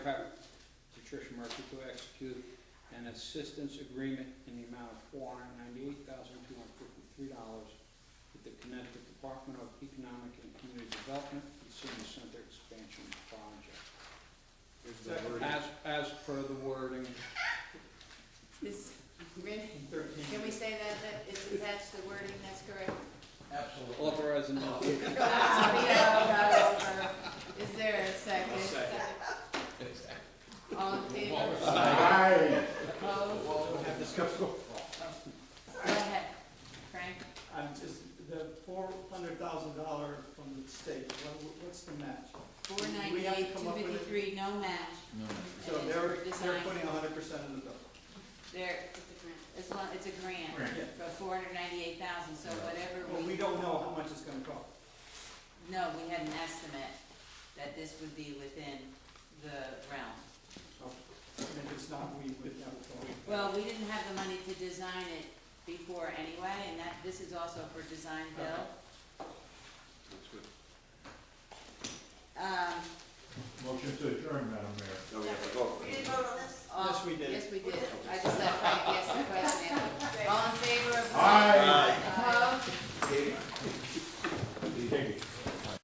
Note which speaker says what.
Speaker 1: Murphy to execute an assistance agreement in the amount of four hundred ninety-eight thousand two hundred fifty-three dollars with the Connecticut Department of Economic and Community Development for the Senior Center Expansion Project.
Speaker 2: Here's the
Speaker 3: Second.
Speaker 2: wording.
Speaker 1: As, as per the wording,
Speaker 4: This, really?
Speaker 3: Thirteen.
Speaker 4: can we say that, that it's attached to the wording, that's correct?
Speaker 3: Absolutely.
Speaker 1: authorize and
Speaker 4: That's what we have got over. Is there a second?
Speaker 3: I'll second.
Speaker 4: All in favor?
Speaker 2: Aye.
Speaker 4: Opposed?
Speaker 3: Well, have this go.
Speaker 4: Go ahead, Frank.
Speaker 3: I'm just, the four hundred thousand dollar from the state, what, what's the match?
Speaker 4: Four
Speaker 3: We have to
Speaker 4: ninety-eight,
Speaker 3: come
Speaker 4: two
Speaker 3: up with it.
Speaker 4: fifty-three, no match.
Speaker 3: So
Speaker 4: And it's
Speaker 3: they're,
Speaker 4: for
Speaker 3: they're
Speaker 4: design.
Speaker 3: putting hundred percent of the bill.
Speaker 4: There, it's a grant, it's one, it's a grant
Speaker 3: Grant. Yeah.
Speaker 4: for four hundred ninety-eight thousand, so whatever
Speaker 3: But
Speaker 4: we,
Speaker 3: we don't know how much it's gonna cost.
Speaker 4: no, we had an estimate that this would be within the realm.
Speaker 3: So, and if it's not, we would never go.
Speaker 4: Well, we didn't have the money to design it before anyway, and that, this is also for design build. Um,
Speaker 5: Motion to adjourn, Madam Mayor.
Speaker 4: we didn't vote on this?
Speaker 3: Yes, we did.
Speaker 4: um, Yes, we oh, did. I just let Frank